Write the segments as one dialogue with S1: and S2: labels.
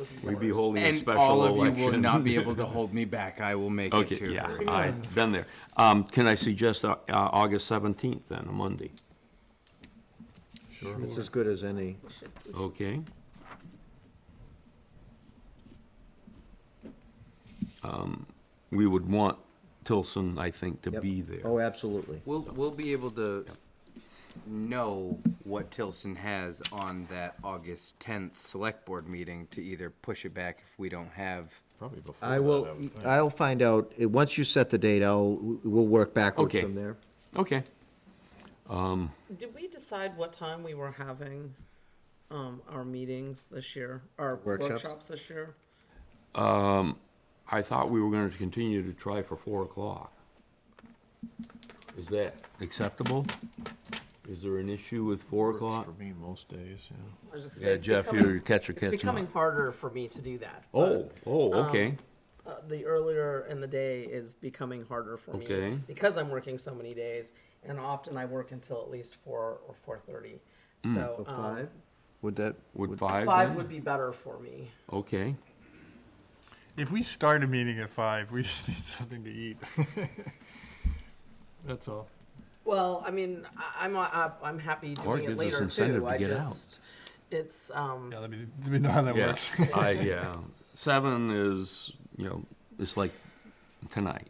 S1: of yours.
S2: We'd be holding a
S3: And
S2: special
S3: all of
S2: election.
S3: you will not be able to hold me back. I will make it
S2: Okay,
S3: to
S2: yeah,
S3: her.
S2: I've been there. Um, Can I suggest uh, uh, August 17th then, a Monday?
S4: It's as good as any.
S2: Okay. Um, We would want Tilson, I think, to
S4: Yep.
S2: be there.
S4: Oh, absolutely.
S3: We'll, we'll be able to know what Tilson has on that August 10th select board meeting to either push it back if we don't have.
S1: Probably before
S4: I
S1: that,
S4: will,
S1: would think.
S4: I'll find out, Uh, once you set the date, I'll, we'll work backwards
S2: Okay.
S4: from there.
S2: Okay.
S5: Did we decide what time we were having um, our meetings this year, our
S4: Workshops?
S5: workshops this year?
S2: I thought we were going to continue to try for 4 o'clock. Is that acceptable? Is there an issue with 4
S1: Works
S2: o'clock?
S1: For me, most days, yeah.
S5: I was just
S2: Yeah,
S5: it's
S2: Jeff,
S5: becoming-
S2: you're catch or catch not.
S5: It's becoming Um, harder for me to do that.
S2: Oh, oh, okay.
S5: but, uh, the earlier in the day is becoming harder for
S2: Okay.
S5: me because I'm working so many days, and often I work until at least four or four thirty. So um,
S4: Five? Would that?
S2: Would 5
S5: five
S2: Hmm. then?
S5: would be better for me.
S2: Okay.
S6: If we start a meeting at five, we just need something to eat. That's all.
S5: Well, I mean, I, I'm I, I'm happy doing
S2: Or it
S5: it,
S2: gives us
S5: later
S2: incentive
S5: too.
S2: to
S5: I
S2: get out.
S5: just it's um,
S6: Yeah, let me, let me know how that
S2: Yeah,
S6: works.
S2: I, yeah. Seven is, you know, it's like tonight.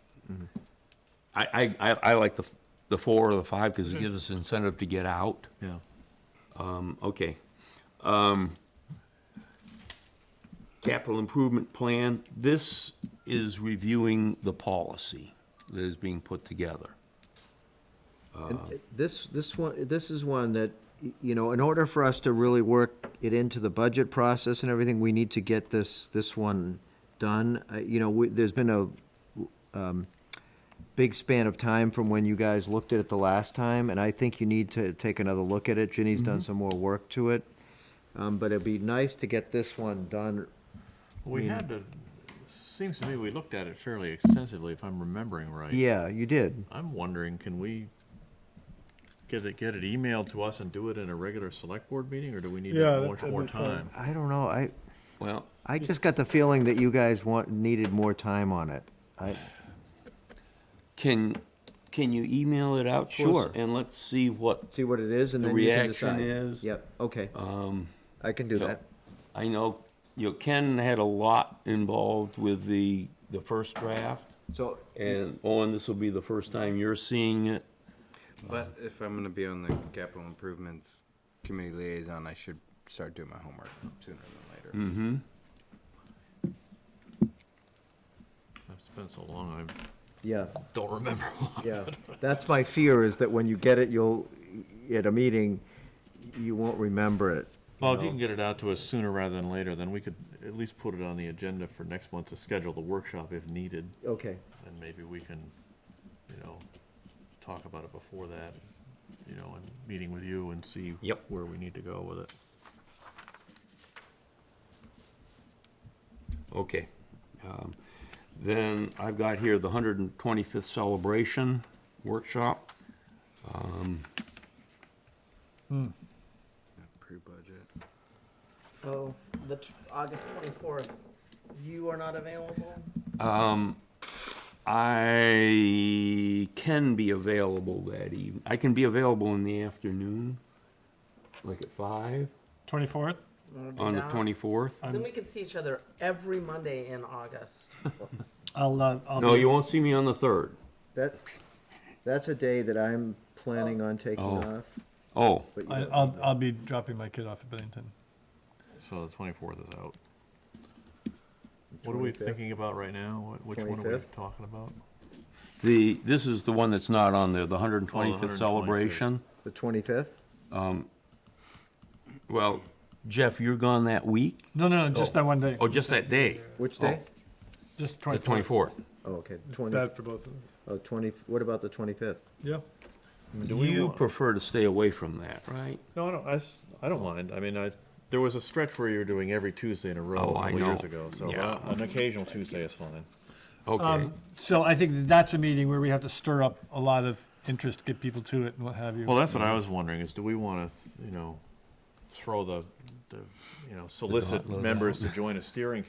S2: I, I, I, I like the, the four or the five because it gives us incentive to get out.
S1: Yeah.
S2: Um, okay. Um, capital improvement plan, this is reviewing the policy that is being put together.
S4: And
S1: Uh-huh.
S4: This, this one, this is one that, y- you know, in order for us to really work it into the budget process and everything, we need to get this, this one done. Uh, You know, we- there's been a um, big span of time from when you guys looked at it the last time, and I think you need to take another look at it. Ginny's
S1: Mm-hmm.
S4: done some more work to it. Um, But it'd be nice to get this one done.
S1: We had to, seems to me we looked at it fairly extensively, if I'm remembering right.
S4: Yeah, you did.
S1: I'm wondering, can we get it, get it emailed to us and do it in a regular select board meeting, or do we need
S6: Yeah,
S1: to have
S6: that-
S1: much
S6: that'd
S1: more
S6: be fun.
S1: time?
S4: I don't know, I,
S2: Well,
S4: I just got the feeling that you guys want, needed more time on it. I,
S2: can, can you email it out to us?
S4: Sure.
S2: And let's see what
S4: see what it is and
S2: The
S4: then you can
S2: reaction
S4: decide.
S2: is-
S4: Yep, okay.
S2: Um,
S4: I can do
S2: Yep.
S4: that.
S2: I know, you know, Ken had a lot involved with the, the first draft,
S4: So,
S2: and Owen, this will be the first time you're seeing it.
S3: But if I'm going to be on the capital improvements committee liaison, I should start doing my homework sooner than
S2: Mm-hmm.
S3: later.
S1: It's been so long, I
S4: yeah,
S1: don't remember.
S4: yeah. That's my fear is that when you get it, you'll, at a meeting, you won't remember it.
S1: Well, if you can get it out to us sooner rather than later, then we could at least put it on the agenda for next month to schedule the workshop if needed,
S4: Okay,
S1: and maybe we can, you know, talk about it before that, you know, and meeting with you and see
S2: Yep.
S1: where we need to go with it.
S2: Okay. Um, Then I've got here the 125th Celebration Workshop.
S3: Pre-budget.
S5: Oh, the t- August twenty fourth. You are not available.
S2: Um, I can be available that evening. I can be available in the afternoon, like at five,
S6: Twenty-fourth?
S5: Wanna do
S2: on the
S5: that?
S2: 24th.
S5: Then we can see each other every Monday in August.
S6: I'll, uh, I'll.
S2: No, you won't see me on the 3rd.
S4: that, that's a day that I'm planning on taking
S2: Oh.
S4: off.
S2: Oh,
S4: but you
S6: I,
S4: don't
S6: I'll,
S4: know.
S6: I'll be dropping my kid off at Bennington.
S1: So the twenty-fourth is out. What are we
S4: 25th?
S1: thinking about right now? What- Which one are we
S4: 25th?
S1: talking about?
S2: the, this is the one that's not on there, Oh, the 125th
S1: 125th.
S2: Celebration.
S4: The twenty-fifth?
S2: Well, Jeff, you're gone that week?
S6: No, no, no, just that one day.
S2: Oh, just that day,
S4: Which day?
S6: Just
S2: the
S6: twenty-fourth.
S2: 24th.
S4: Oh, okay, twenty,
S6: Bad for both of us.
S4: oh, twenty, what about the twenty-fifth?
S6: Yeah.
S1: Mm,
S2: You prefer to stay away from that, right?
S1: No, I don't, I, s- I don't mind. I mean, I, there was a stretch where you were doing every Tuesday in a row
S2: Oh,
S1: a
S2: I
S1: couple years
S2: know.
S1: ago, so
S2: Yeah.
S1: uh, an occasional Tuesday is fine.
S2: Okay.
S6: Um, so I think that that's a meeting where we have to stir up a lot of interest, get people to it and what have you.
S2: Mm-hmm.
S1: Well, that's what I was wondering, is do we wanna, you know, throw the, the, you know, solicit
S2: gauntlet
S1: members to join a steering